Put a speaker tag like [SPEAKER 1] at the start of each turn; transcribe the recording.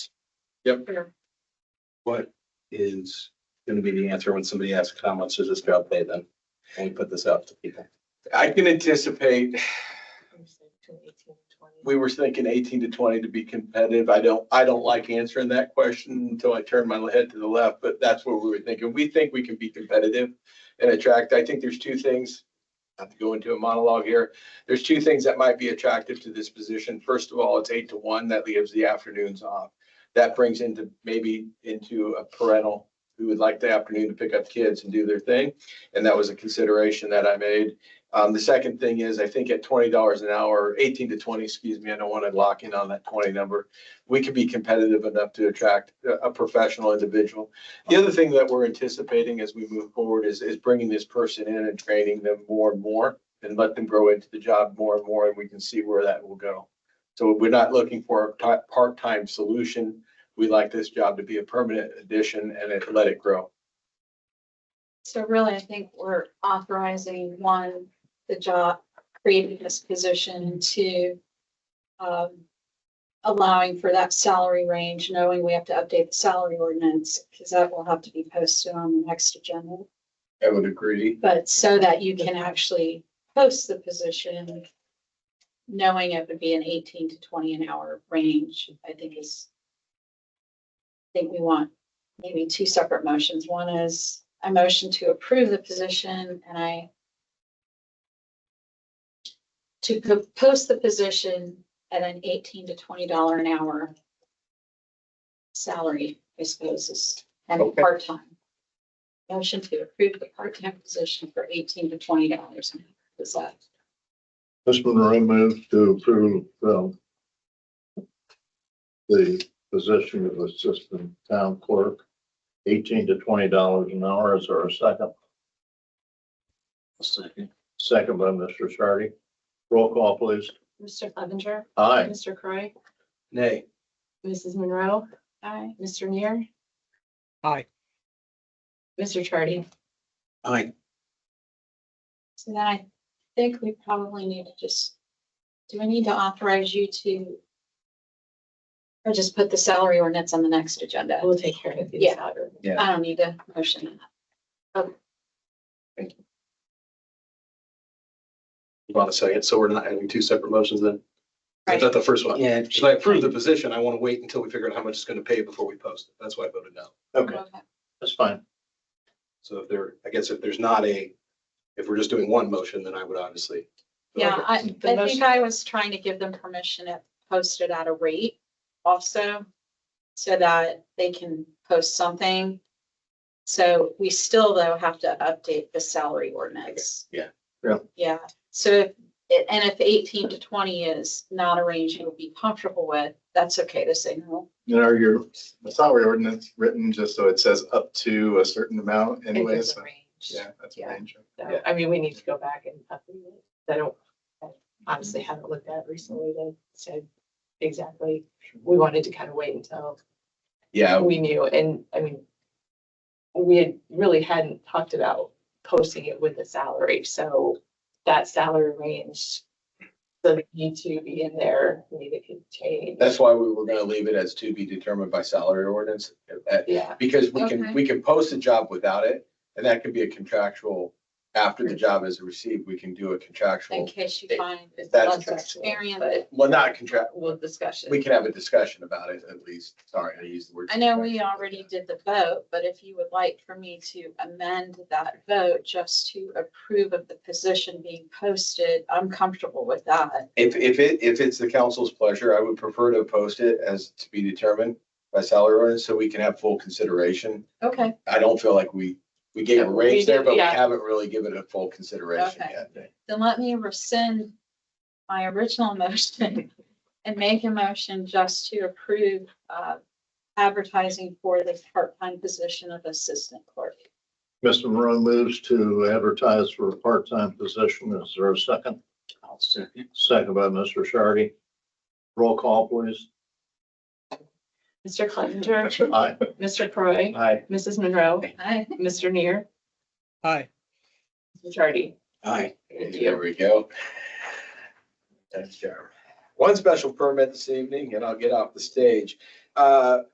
[SPEAKER 1] Yep.
[SPEAKER 2] What is gonna be the answer when somebody asks, how much does this job pay then? When we put this out to people.
[SPEAKER 1] I can anticipate,
[SPEAKER 3] Between 18 and 20.
[SPEAKER 1] we were thinking eighteen to twenty to be competitive. I don't, I don't like answering that question until I turn my head to the left, but that's what we were thinking. We think we can be competitive and attract. I think there's two things. Not to go into a monologue here. There's two things that might be attractive to this position. First of all, it's eight to one. That leaves the afternoons off. That brings into maybe into a parental who would like the afternoon to pick up kids and do their thing. And that was a consideration that I made. Um, the second thing is, I think at twenty dollars an hour, eighteen to twenty, excuse me, I don't want to lock in on that twenty number. We could be competitive enough to attract a, a professional individual. The other thing that we're anticipating as we move forward is, is bringing this person in and training them more and more and let them grow into the job more and more, and we can see where that will go. So we're not looking for a ti- part-time solution. We like this job to be a permanent addition and it, let it grow.
[SPEAKER 4] So really, I think we're authorizing, one, the job, creating this position, and two, um, allowing for that salary range, knowing we have to update the salary ordinance, because that will have to be posted on the next agenda.
[SPEAKER 1] I would agree.
[SPEAKER 4] But so that you can actually post the position, knowing it would be an eighteen to twenty an hour range, I think is. I think we want maybe two separate motions. One is a motion to approve the position and I to po- post the position at an eighteen to twenty dollar an hour salary, I suppose, is, and
[SPEAKER 1] Okay.
[SPEAKER 4] part-time. Motion to approve the part-time position for eighteen to twenty dollars. Is that
[SPEAKER 5] Mr. Monroe moves to approve, um, the position of assistant town clerk, eighteen to twenty dollars an hour. Is there a second?
[SPEAKER 2] Second.
[SPEAKER 5] Second by Mr. Shardy. Roll call, please.
[SPEAKER 3] Mr. Clevenger,
[SPEAKER 5] Aye.
[SPEAKER 3] Mr. Croy,
[SPEAKER 1] Nay.
[SPEAKER 3] Mrs. Monroe,
[SPEAKER 4] aye?
[SPEAKER 3] Mr. Neer.
[SPEAKER 6] Aye.
[SPEAKER 3] Mr. Chardy.
[SPEAKER 2] Aye.
[SPEAKER 4] So then I think we probably need to just, do we need to authorize you to or just put the salary ordinance on the next agenda?
[SPEAKER 3] We'll take care of you.
[SPEAKER 4] Yeah. I don't need to motion that.
[SPEAKER 2] Hold on a second. So we're not having two separate motions then? I
[SPEAKER 4] Right.
[SPEAKER 2] thought the first one,
[SPEAKER 6] Yeah.
[SPEAKER 2] should I approve the position? I want to wait until we figure out how much it's going to pay before we post it. That's why I voted no.
[SPEAKER 5] Okay, that's fine.
[SPEAKER 2] So if there, I guess if there's not a, if we're just doing one motion, then I would obviously.
[SPEAKER 4] Yeah, I, I
[SPEAKER 3] The
[SPEAKER 4] think
[SPEAKER 3] motion-
[SPEAKER 4] I was trying to give them permission to post it at a rate also, so that they can post something. So we still though have to update the salary ordinance.
[SPEAKER 2] yeah.
[SPEAKER 5] Yeah.
[SPEAKER 4] Yeah, so if, and if eighteen to twenty is not a range you would be comfortable with, that's okay to say no.
[SPEAKER 7] You know, your salary ordinance written just so it says up to a certain amount
[SPEAKER 3] It
[SPEAKER 7] anyway,
[SPEAKER 3] is a
[SPEAKER 7] so,
[SPEAKER 3] range.
[SPEAKER 7] yeah, that's
[SPEAKER 3] Yeah.
[SPEAKER 7] range.
[SPEAKER 3] So, I mean, we need to go back and update it. I don't, I honestly haven't looked at it recently that said exactly. We wanted to kind of wait until
[SPEAKER 1] Yeah,
[SPEAKER 3] we knew, and I mean, we had really hadn't talked about posting it with a salary, so that salary range, the you two be in there, maybe it could change.
[SPEAKER 1] That's why we were gonna leave it as to be determined by salary ordinance, uh,
[SPEAKER 3] Yeah,
[SPEAKER 1] because we can,
[SPEAKER 4] Okay.
[SPEAKER 1] we can post a job without it, and that could be a contractual. After the job is received, we can do a
[SPEAKER 4] In
[SPEAKER 1] contractual,
[SPEAKER 4] case you
[SPEAKER 1] It-
[SPEAKER 4] find
[SPEAKER 3] it's
[SPEAKER 1] That's
[SPEAKER 3] not contractual,
[SPEAKER 4] experience.
[SPEAKER 3] but
[SPEAKER 1] well, not contract,
[SPEAKER 3] we'll discuss
[SPEAKER 1] we
[SPEAKER 3] it.
[SPEAKER 1] can have a discussion about it at least, sorry, I used the word.
[SPEAKER 4] I know we
[SPEAKER 1] contractual.
[SPEAKER 4] already did the vote, but if you would like for me to amend that vote just to approve of the position being posted, I'm comfortable with that.
[SPEAKER 1] If, if it, if it's the council's pleasure, I would prefer to post it as to be determined by salary ordinance, so we can have full consideration.
[SPEAKER 4] Okay.
[SPEAKER 1] I don't feel like we, we gave a
[SPEAKER 3] We
[SPEAKER 1] range there, but we
[SPEAKER 3] did, yeah.
[SPEAKER 1] haven't really given it a full consideration
[SPEAKER 4] Okay.
[SPEAKER 1] yet.
[SPEAKER 4] Then let me rescind my original motion and make a motion just to approve uh, advertising for the part-time position of assistant clerk.
[SPEAKER 5] Mr. Monroe moves to advertise for a part-time position. Is there a second? Second by Mr. Shardy. Roll call, please.
[SPEAKER 3] Mr. Clevenger,
[SPEAKER 5] Aye.
[SPEAKER 3] Mr. Croy,
[SPEAKER 5] Aye.
[SPEAKER 3] Mrs. Monroe,
[SPEAKER 4] Aye.
[SPEAKER 3] Mr. Neer,
[SPEAKER 6] Aye.
[SPEAKER 3] Mr. Chardy.
[SPEAKER 1] Aye.
[SPEAKER 3] Thank
[SPEAKER 1] There we go. That's Jeremy. One special permit this evening, and I'll get off the stage. Uh,